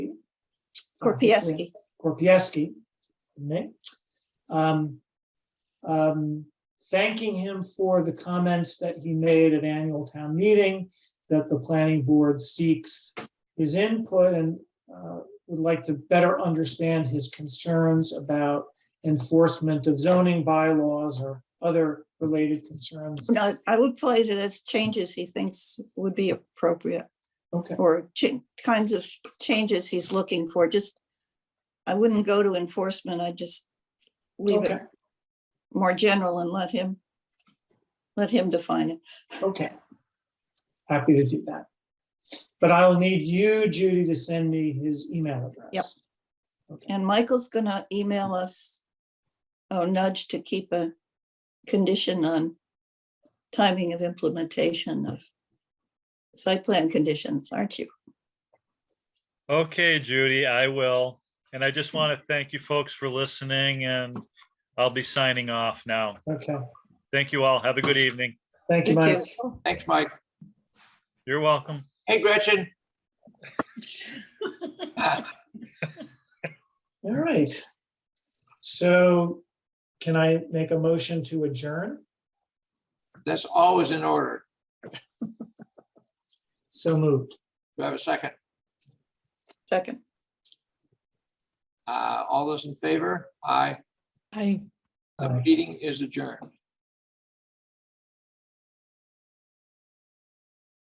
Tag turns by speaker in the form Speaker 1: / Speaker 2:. Speaker 1: Oh,
Speaker 2: Um,
Speaker 1: Korpieski.
Speaker 2: Korpieski, name. Um, um, thanking him for the comments that he made at annual town meeting, that the planning board seeks his input and uh, would like to better understand his concerns about enforcement of zoning bylaws or other related concerns.
Speaker 1: No, I would place it as changes he thinks would be appropriate
Speaker 2: Okay,
Speaker 1: or cha- kinds of changes he's looking for. Just, I wouldn't go to enforcement. I just leave
Speaker 2: okay,
Speaker 1: it more general and let him, let him define it.
Speaker 2: okay. Happy to do that. But I'll need you, Judy, to send me his email address.
Speaker 1: Yep. And Michael's gonna email us a nudge to keep a condition on timing of implementation of site plan conditions, aren't you?
Speaker 3: Okay, Judy, I will. And I just want to thank you folks for listening and I'll be signing off now.
Speaker 2: Okay,
Speaker 3: Thank you all. Have a good evening.
Speaker 2: thank you,
Speaker 1: Thank
Speaker 2: Mike.
Speaker 1: you.
Speaker 4: Thanks, Mike.
Speaker 3: You're welcome.
Speaker 4: Hey, Gretchen. Ah,
Speaker 2: All right. So can I make a motion to adjourn?
Speaker 4: That's always in order.
Speaker 2: So moved.
Speaker 4: Do I have a second?
Speaker 1: Second.
Speaker 4: Uh, All those in favor? Aye.
Speaker 5: I
Speaker 4: The meeting is adjourned.